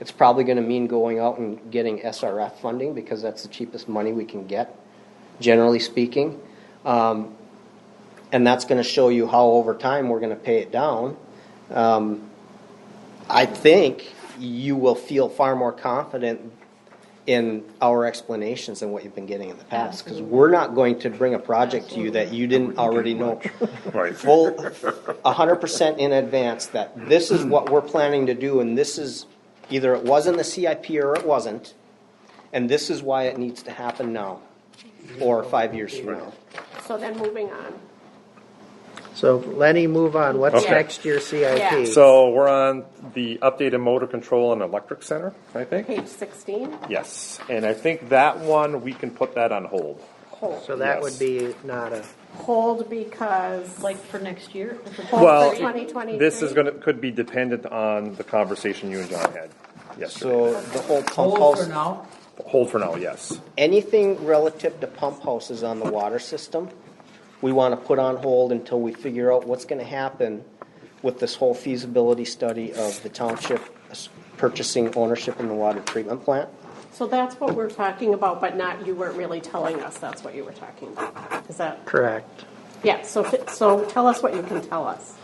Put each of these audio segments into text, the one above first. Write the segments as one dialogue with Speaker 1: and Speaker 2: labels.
Speaker 1: It's probably gonna mean going out and getting SRF funding, because that's the cheapest money we can get, generally speaking. Um, and that's gonna show you how over time we're gonna pay it down. Um, I think you will feel far more confident in our explanations than what you've been getting in the past, because we're not going to bring a project to you that you didn't already know
Speaker 2: Right.
Speaker 1: full, a hundred percent in advance that this is what we're planning to do and this is, either it was in the CIP or it wasn't, and this is why it needs to happen now, or five years from now.
Speaker 3: So then moving on.
Speaker 4: So Lenny, move on. What's
Speaker 2: Okay.
Speaker 4: next year's
Speaker 3: Yeah.
Speaker 4: CIP?
Speaker 2: So we're on the updated motor control and electric center, I think.
Speaker 3: Page sixteen,
Speaker 2: Yes, and I think that one, we can put that on hold.
Speaker 4: So
Speaker 3: hold.
Speaker 4: that
Speaker 2: Yes.
Speaker 4: would be not a,
Speaker 3: Hold because,
Speaker 5: Like for next year?
Speaker 2: Well,
Speaker 3: hold for twenty twenty-three.
Speaker 2: this is gonna, could be dependent on the conversation you and John had
Speaker 1: So
Speaker 2: yesterday.
Speaker 1: the whole pump
Speaker 6: Hold for
Speaker 1: house,
Speaker 6: now.
Speaker 2: Hold for now, yes.
Speaker 1: anything relative to pump houses on the water system, we wanna put on hold until we figure out what's gonna happen with this whole feasibility study of the township purchasing ownership in the water treatment plant.
Speaker 3: So that's what we're talking about, but not, you weren't really telling us that's what you were talking about. Is that,
Speaker 4: correct.
Speaker 3: yeah, so, fi- so tell us what you can tell us.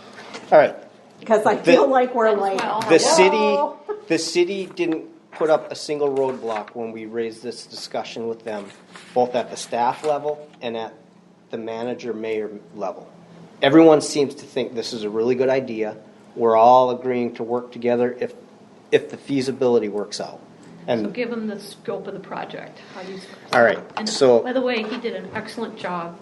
Speaker 1: All right,
Speaker 3: Because I
Speaker 1: The-
Speaker 3: feel like we're like,
Speaker 5: Well,
Speaker 1: The
Speaker 3: Hello?
Speaker 1: city, the city didn't put up a single roadblock when we raised this discussion with them, both at the staff level and at the manager mayor level. Everyone seems to think this is a really good idea. We're all agreeing to work together if, if the feasibility works out.
Speaker 5: So
Speaker 1: And
Speaker 5: give him the scope of the project. how you-
Speaker 1: All right,
Speaker 5: And
Speaker 1: so-
Speaker 5: By the way, he did an excellent job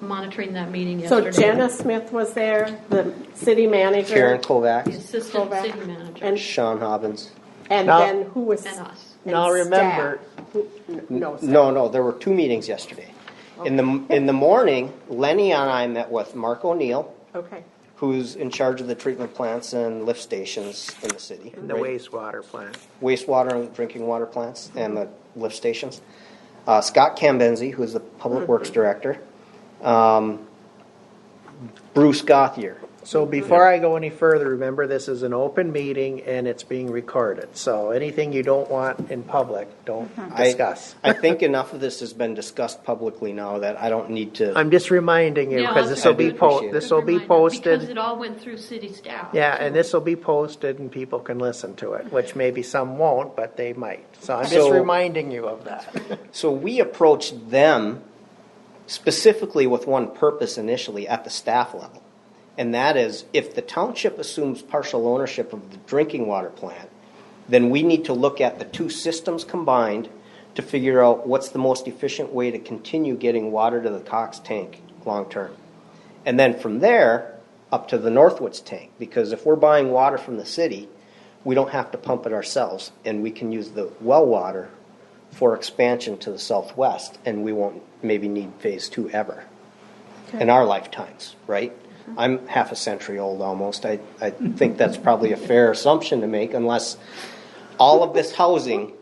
Speaker 5: monitoring that meeting
Speaker 3: so
Speaker 5: yesterday.
Speaker 3: Jana Smith was there, the city manager.
Speaker 1: Karen
Speaker 5: The
Speaker 1: Kovacs,
Speaker 5: Assistant
Speaker 3: Kovac,
Speaker 5: city manager
Speaker 3: And,
Speaker 1: Sean Hobbins.
Speaker 3: and
Speaker 4: Now-
Speaker 3: then who was?
Speaker 5: and us.
Speaker 3: and
Speaker 4: Now remember-
Speaker 3: staff. Who- n- No. staff.
Speaker 1: No, no, there were two meetings yesterday. In the, in the morning, Lenny and I met with Mark O'Neill,
Speaker 3: Okay,
Speaker 1: who's in charge of the treatment plants and lift stations in the city.
Speaker 4: The wastewater plant.
Speaker 1: wastewater and drinking water plants and the lift stations. Uh, Scott Cambenzi, who is the Public
Speaker 4: Mm-hmm.
Speaker 1: Works Director. Um, Bruce Gothier.
Speaker 4: So before I go any further, remember this is an open meeting and it's being recorded. So anything you don't want in public, don't
Speaker 1: I-
Speaker 4: discuss.
Speaker 1: I think enough of this has been discussed publicly now that I don't need to.
Speaker 4: I'm just reminding you
Speaker 5: Yeah,
Speaker 4: because this will
Speaker 5: that's a
Speaker 4: be
Speaker 5: good-
Speaker 4: po,
Speaker 1: appreciate it.
Speaker 4: this will
Speaker 5: good
Speaker 4: be
Speaker 5: reminder, Because
Speaker 4: posted.
Speaker 5: it all went through city staff.
Speaker 4: Yeah, and this will be posted and people can listen to it, which maybe some won't, but they might. So I'm just
Speaker 1: So-
Speaker 4: reminding you of that.
Speaker 1: So we approached them specifically with one purpose initially at the staff level. And that is if the township assumes partial ownership of the drinking water plant, then we need to look at the two systems combined to figure out what's the most efficient way to continue getting water to the Cox tank long term. And then from there up to the Northwoods tank because if we're buying water from the city, we don't have to pump it ourselves and we can use the well water for expansion to the southwest, and we won't maybe need phase two ever in our lifetimes, right? I'm half a century old almost. I, I think that's probably a fair assumption to make unless all of this housing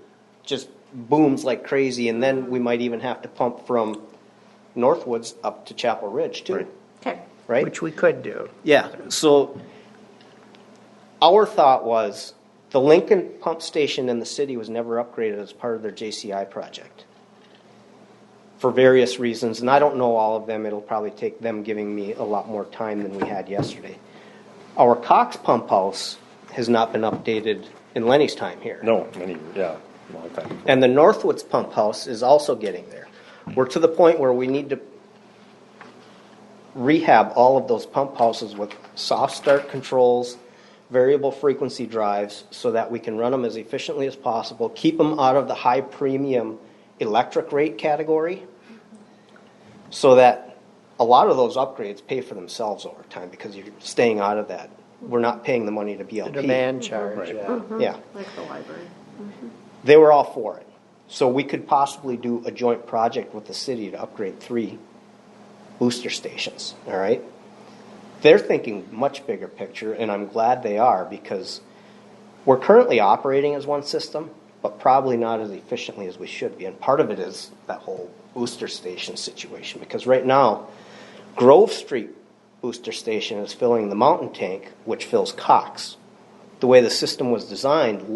Speaker 1: just booms like crazy, and then we might even have to pump from Northwoods up to Chapel Ridge, too,
Speaker 2: Right.
Speaker 3: okay.
Speaker 1: right?
Speaker 4: Which we could do.
Speaker 1: Yeah, so our thought was the Lincoln pump station in the city was never upgraded as part of their JCI project for various reasons, and I don't know all of them. It'll probably take them giving me a lot more time than we had yesterday. Our Cox pump house has not been updated in Lenny's time here.
Speaker 2: No, many, yeah, long time.
Speaker 1: And the Northwoods Pump House is also getting there. We're to the point where we need to rehab all of those pump houses with soft start controls, variable frequency drives, so that we can run them as efficiently as possible, keep them out of the high premium electric rate category, so that a lot of those upgrades pay for themselves over time because you're staying out of that. We're not paying the money to
Speaker 4: The
Speaker 1: BLP.
Speaker 4: demand charge,
Speaker 2: Right.
Speaker 4: yeah.
Speaker 1: Yeah
Speaker 3: Uh-huh. Like the library. Mm-hmm.
Speaker 1: they were all for it. So we could possibly do a joint project with the city to upgrade three booster stations, all right? They're thinking much bigger picture, and I'm glad they are because we're currently operating as one system, but probably not as efficiently as we should be. And part of it is that whole booster station situation because right now, Grove Street booster station is filling the mountain tank, which fills Cox. The way the system was designed,